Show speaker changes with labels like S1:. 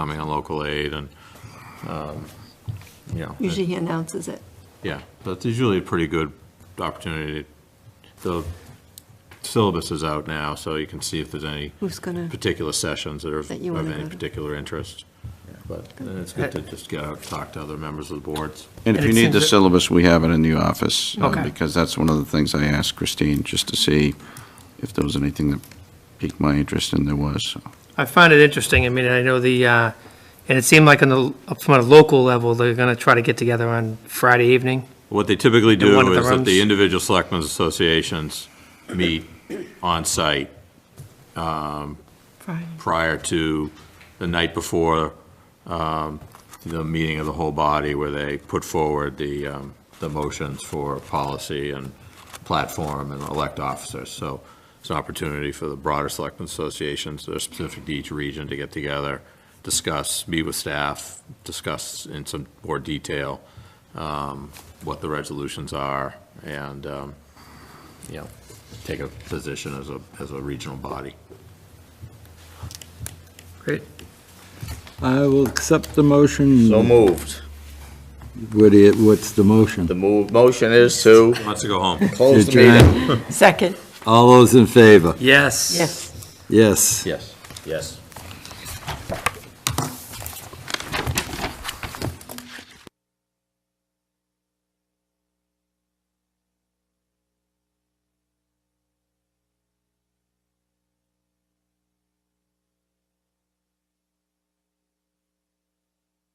S1: coming on local aid and, um, you know.
S2: Usually he announces it.
S1: Yeah, that's usually a pretty good opportunity. The syllabus is out now, so you can see if there's any
S2: Who's gonna,
S1: particular sessions that are of
S2: That you wanna go
S1: any
S2: to.
S1: particular interest. But uh, it's good to just get out, talk to other members of the boards.
S3: And
S4: And
S3: if you
S4: it
S3: need
S4: seems
S3: the
S4: that-
S3: syllabus, we have it in the office. uh,
S4: Okay.
S3: Because that's one of the things I asked Christine, just to see if there was anything that piqued my interest, and there was. so.
S4: I find it interesting. I mean, I know the, uh, and it seemed like on the, from a local level, they're going to try to get together on Friday evening.
S1: What they typically
S4: In one
S1: do
S4: of the
S1: is that
S4: rooms?
S1: the individual selectmen's associations meet on-site
S2: Friday?
S1: prior to the night before um, the meeting of the whole body where they put forward the, um, the motions for policy and platform and elect officers. So it's an opportunity for the broader selectmen associations that are specific to each region to get together, discuss, meet with staff, discuss in some more detail um, what the resolutions are and, um, you know, take a position as a, as a regional body.
S4: Great.
S5: I will accept the motion.
S6: So moved.
S5: What i- what's the
S6: The
S5: motion?
S6: move, motion is to
S1: Let's go home.
S6: close the
S5: Adjourn.
S6: meeting.
S2: Second,
S5: All those in favor?
S4: Yes.
S2: yes.
S5: Yes.
S6: Yes. Yes.